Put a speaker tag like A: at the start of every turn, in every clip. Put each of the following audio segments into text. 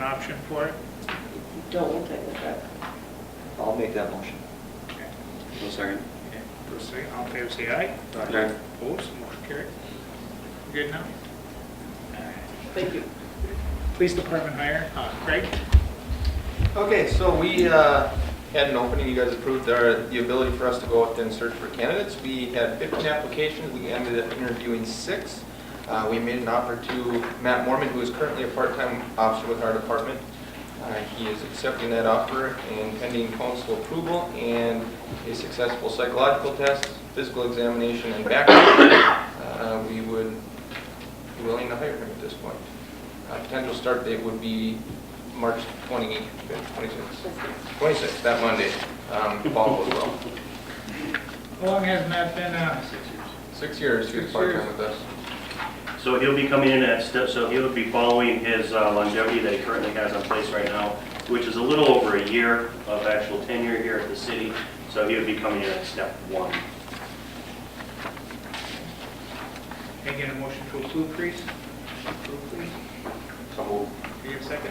A: option for it?
B: Don't look like the truck.
C: I'll make that motion.
A: Okay.
D: One second.
A: Okay, Bruce, say- all in favor, say aye.
D: Aye.
A: Opposed, motion carried. Good now?
B: Thank you.
A: Police Department hire, uh, Craig?
E: Okay, so we uh, had an opening, you guys approved our, the ability for us to go out and search for candidates. We had 15 applications, we ended up interviewing six. Uh, We made an offer to Matt Mormon, who is currently a part-time officer with our department. Uh, He is accepting that offer and pending council approval and a successful psychological test, physical examination, and background. Uh, We would be willing to hire him at this point. Uh, Potential start date would be March 25th, 26th. 26th, that Monday, um, if all goes well.
A: How long has Matt been, uh,
E: Six years he was
A: Six
E: part-time
A: years.
E: with us.
F: So he'll be coming in at step, so he'll be following his uh, longevity that he currently has in place right now, which is a little over a year of actual tenure here at the city. So he would be coming in at step one.
A: can I get a motion to approve, please? Approve, please.
D: So moved.
A: Do you have a second?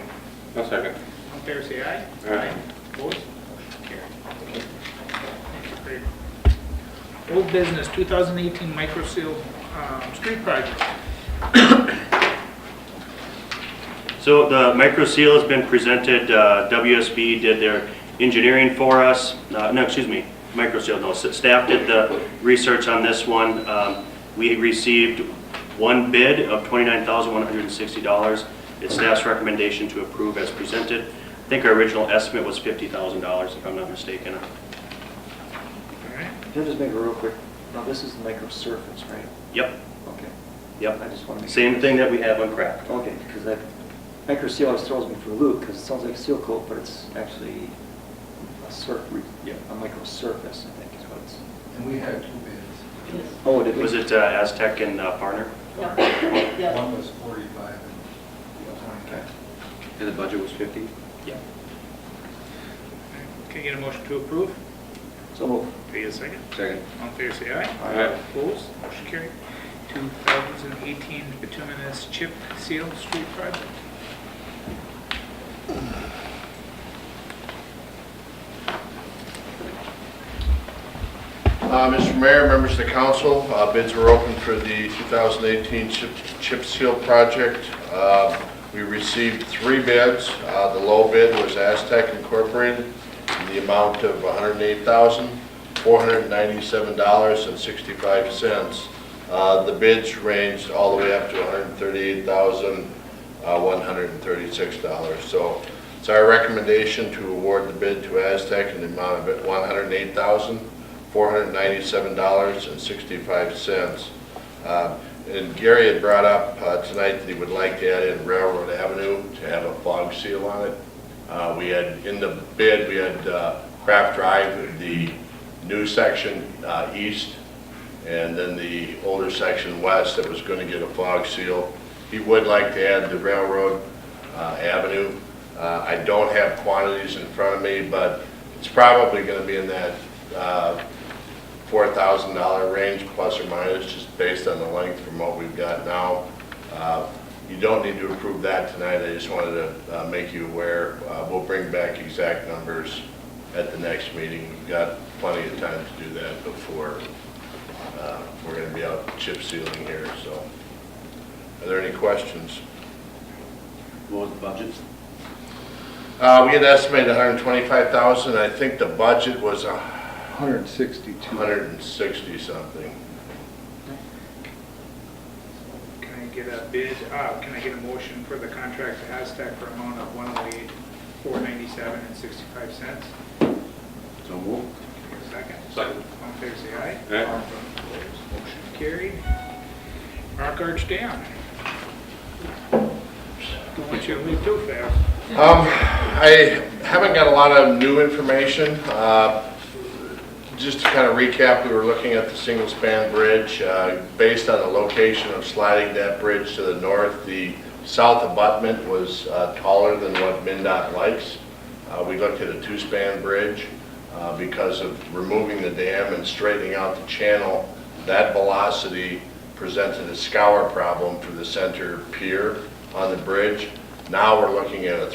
D: One second.
A: All in favor, say aye.
D: Aye.
A: Opposed, motion carried. Thank you, Craig. Old business, 2018 micro seal, um, street project.
F: So the micro seal has been presented, uh, WSB did their engineering for us, Uh, no, excuse me, micro seal, no, s- staff did the research on this one. Um, We received one bid of $29,160. It's staff's recommendation to approve as presented. I think our original estimate was $50,000, if I'm not mistaken.
A: All right.
C: Can I just make a real quick, now this is the microsurface, right?
F: Yep,
C: Okay. I
F: yep,
C: just want to make.
F: same thing that we have on crack.
C: Okay, because that microseal always throws me for a loop because it sounds like seal coat, but it's actually a surf,
F: Yeah.
C: a microsurface, I think is what it's.
G: And we had two bids.
C: Oh, did we?
F: Was it uh, Aztec and uh, Parner?
B: No, yeah,
G: One was 45 and 20.
D: And the budget was 50?
F: Yep.
A: Can I get a motion to approve?
C: So moved.
A: Do you have a second?
D: Second.
A: All in favor, say aye.
D: Aye.
A: Opposed, motion carried. 2018 bituminous chip seal street project.
H: Uh, Mr. Mayor, members of the council, uh, bids were open for the 2018 chip- chip seal project. Uh, We received three bids. Uh, The low bid was Aztec Incorporated in the amount of $108,497.65. Uh, The bids ranged all the way up to uh, $138,136. So it's our recommendation to award the bid to Aztec in the amount of $108,000. $497.65. Uh, And Gary had brought up uh, tonight that he would like to add in Railroad Avenue to have a fog seal on it. Uh, We had, in the bid, we had uh, Craft Drive, the new section uh, east, and then the older section west that was going to get a fog seal. He would like to add the Railroad uh, Avenue. Uh, I don't have quantities in front of me, but it's probably going to be in that uh, $4,000 range, plus or minus, just based on the length from what we've got now. Uh, You don't need to approve that tonight, I just wanted to uh, make you aware. Uh, We'll bring back exact numbers at the next meeting. We've got plenty of time to do that before uh, we're going to be out chip sealing here, so. Are there any questions?
D: What was the budget?
H: Uh, We had estimated 125,000, I think the budget was a
G: 162.
H: 160 something.
A: Can I get a bid, uh, can I get a motion for the contract to Aztec for amount of one oh eight, four ninety-seven and sixty-five cents?
D: So moved.
A: Second?
D: Second.
A: All in favor, say aye.
D: Aye.
A: Opposed, Motion carried. Rock Arch Dam. Don't want you to leave too fast.
H: Um, I haven't got a lot of new information. Uh, Just to kind of recap, we were looking at the single-span bridge. Uh, Based on the location of sliding that bridge to the north, the south abutment was uh, taller than what MinDOT likes. Uh, We looked at a two-span bridge uh, because of removing the dam and straightening out the channel. That velocity presented a scour problem for the center pier on the bridge. Now we're looking at a